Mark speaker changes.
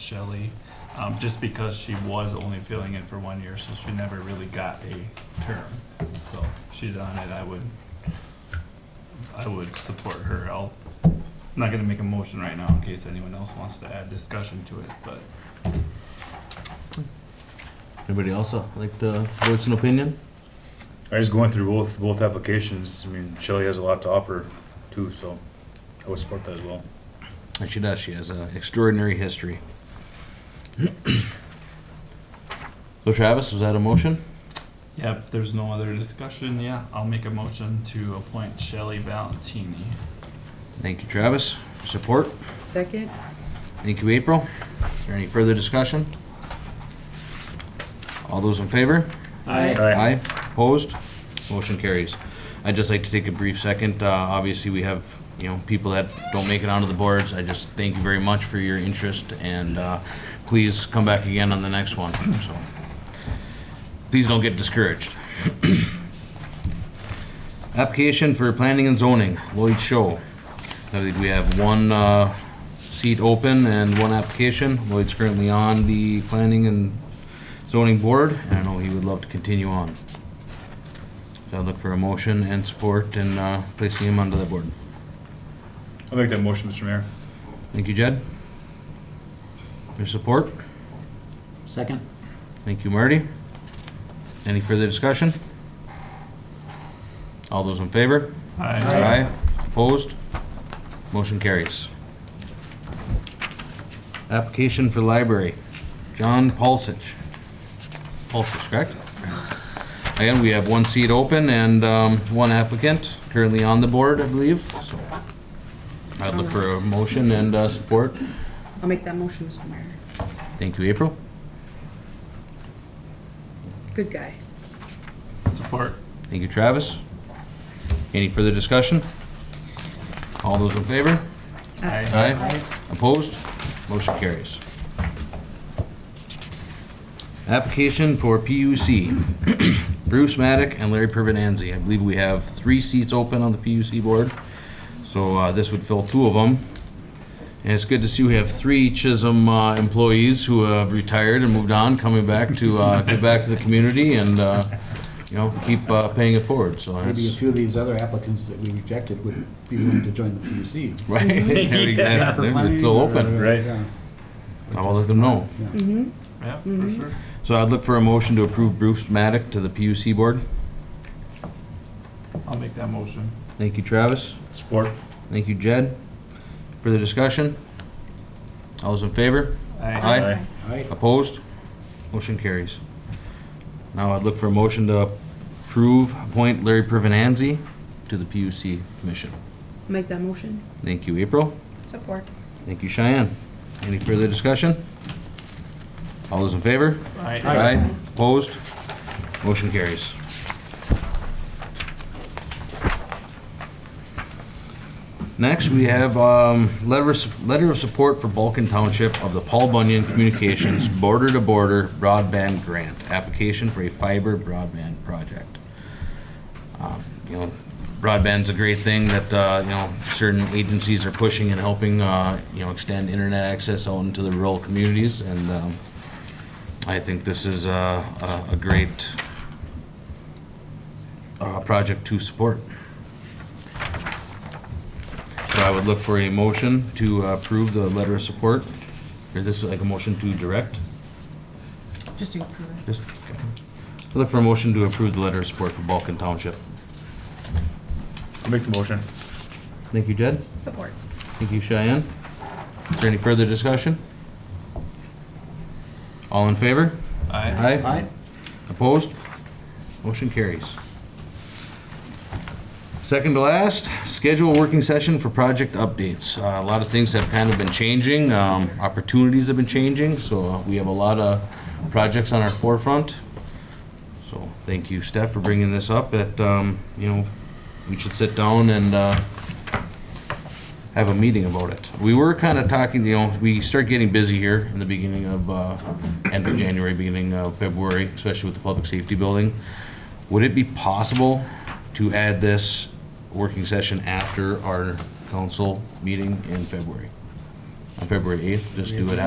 Speaker 1: Shelley, um, just because she was only filling in for one year, so she never really got a term. So she's on it, I would, I would support her. I'll, I'm not gonna make a motion right now in case anyone else wants to add discussion to it, but
Speaker 2: Anybody else uh, like to voice an opinion?
Speaker 3: I was going through both, both applications. I mean, Shelley has a lot to offer too, so I would support that as well.
Speaker 2: And she does, she has an extraordinary history. So Travis, was that a motion?
Speaker 1: yeah, if there's no other discussion, yeah, I'll make a motion to appoint Shelley Valentini.
Speaker 2: Thank you, Travis. Support?
Speaker 4: Second?
Speaker 2: Thank you, April. Is there any further discussion? All those in favor?
Speaker 4: Aye.
Speaker 2: Aye. Opposed? Motion carries. I'd just like to take a brief second. Uh, Obviously, we have, you know, people that don't make it onto the boards. I just thank you very much for your interest, and uh, please come back again on the next one, so. Please don't get discouraged. Application for planning and zoning, Lloyd Show. I think we have one uh, seat open and one application. Lloyd's currently on the planning and zoning board, and I know he would love to continue on. So I'd look for a motion and support and uh, placing him onto the board.
Speaker 3: I'll make that motion, Mr. Mayor.
Speaker 2: Thank you, Jed. Your support.
Speaker 5: Second?
Speaker 2: Thank you, Marty. Any further discussion? All those in favor? Aye. Opposed? Motion carries. Application for library, John Paulsich. Paulsich, correct? Again, we have one seat open and um, one applicant currently on the board, I believe, so. I'd look for a motion and uh, support.
Speaker 4: I'll make that motion, Mr. Mayor.
Speaker 2: Thank you, April.
Speaker 4: Good guy.
Speaker 1: Support.
Speaker 2: Thank you, Travis. Any further discussion? All those in favor?
Speaker 1: Aye.
Speaker 2: Aye. Opposed? Motion carries. Application for PUC, Bruce Maddock and Larry Pervenanzi. I believe we have three seats open on the PUC board, so uh, this would fill two of them. And it's good to see we have three Chisholm uh, employees who have retired and moved on, coming back to, uh, give back to the community and, uh, you know, keep uh, paying it forward, so
Speaker 5: Maybe a
Speaker 2: that's,
Speaker 5: few of these other applicants that we rejected would be willing to join the PUC.
Speaker 2: right? There you go. It's still open.
Speaker 3: Right.
Speaker 2: I will let them know.
Speaker 4: Mm-hmm.
Speaker 1: Yeah, for sure.
Speaker 2: So I'd look for a motion to approve Bruce Maddock to the PUC board.
Speaker 1: I'll make that motion.
Speaker 2: Thank you, Travis.
Speaker 3: Support.
Speaker 2: Thank you, Jed. Further discussion? All those in favor? Aye.
Speaker 5: Alright,
Speaker 2: Opposed? Motion carries. Now I'd look for a motion to approve, appoint Larry Pervenanzi to the PUC commission.
Speaker 4: Make that motion.
Speaker 2: Thank you, April.
Speaker 4: Support.
Speaker 2: Thank you, Cheyenne. Any further discussion? All those in favor?
Speaker 1: Aye.
Speaker 2: Aye. Opposed? Motion carries. Next, we have um, letter of letter of support for Balkan Township of the Paul Bunyan Communications Border to Border Broadband Grant, application for a fiber broadband project. Um, You know, broadband's a great thing that, uh, you know, certain agencies are pushing and helping, uh, you know, extend internet access out into the rural communities, and um, I think this is a, a- a great uh, project to support. So I would look for a motion to approve the letter of support. Is this like a motion to direct?
Speaker 4: Just to approve it.
Speaker 2: Just, okay. I Look for a motion to approve the letter of support for Balkan Township.
Speaker 3: I'll make the motion.
Speaker 2: Thank you, Jed.
Speaker 4: Support.
Speaker 2: Thank you, Cheyenne. Is there any further discussion? All in favor?
Speaker 1: Aye.
Speaker 2: Aye.
Speaker 5: Aye.
Speaker 2: Opposed? Motion carries. Second to last, schedule a working session for project updates. Uh, A lot of things have kind of been changing, um, opportunities have been changing, so uh, we have a lot of projects on our forefront. So thank you, Steph, for bringing this up, that, um, you know, we should sit down and uh, have a meeting about it. We were kind of talking, you know, we start getting busy here in the beginning of, uh, end of January, beginning of February, especially with the public safety building. Would it be possible to add this working session after our council meeting in February? On February 8th, just do it